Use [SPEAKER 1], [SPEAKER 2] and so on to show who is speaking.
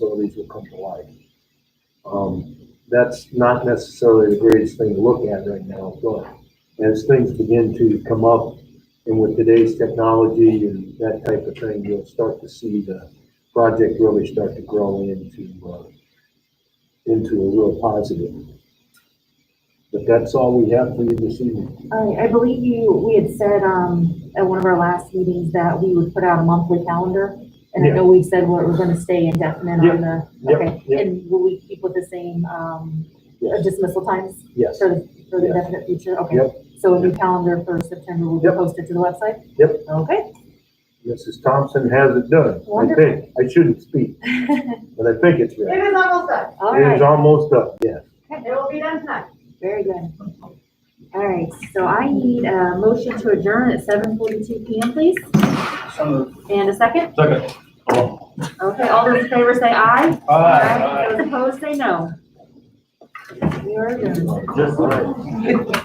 [SPEAKER 1] these will come to life. Um, that's not necessarily the greatest thing to look at right now, but as things begin to come up and with today's technology and that type of thing, you'll start to see the project really start to grow into, uh, into a real positive. But that's all we have for you this evening.
[SPEAKER 2] I, I believe you, we had said, um, at one of our last meetings that we would put out a monthly calendar. And I know we said we're, we're gonna stay indefinite
[SPEAKER 1] Yep,
[SPEAKER 2] on the,
[SPEAKER 1] yep,
[SPEAKER 2] okay,
[SPEAKER 1] yep.
[SPEAKER 2] and will we keep with the same, um,
[SPEAKER 1] Yes.
[SPEAKER 2] dismissal times
[SPEAKER 1] Yes,
[SPEAKER 2] for, the- for the
[SPEAKER 1] Yes.
[SPEAKER 2] definite future? Okay.
[SPEAKER 1] Yep.
[SPEAKER 2] So a new calendar for September will be
[SPEAKER 1] Yep.
[SPEAKER 2] posted to the website?
[SPEAKER 1] Yep.
[SPEAKER 2] Okay.
[SPEAKER 1] Mrs. Thompson has it done. I think,
[SPEAKER 2] Wonderful.
[SPEAKER 1] I shouldn't speak, but I think it's
[SPEAKER 3] It
[SPEAKER 1] ready.
[SPEAKER 3] is almost done.
[SPEAKER 2] All
[SPEAKER 1] It is
[SPEAKER 2] right,
[SPEAKER 1] almost up, yes.
[SPEAKER 3] It will be done tonight.
[SPEAKER 2] very good. All right, so I need a motion to adjourn at seven forty-two PM, please, and a second?
[SPEAKER 4] Second.
[SPEAKER 2] Okay, all those in favor say aye?
[SPEAKER 4] Aye.
[SPEAKER 2] Those opposed, say no. We are adjourned.
[SPEAKER 4] Just.
[SPEAKER 1] All right.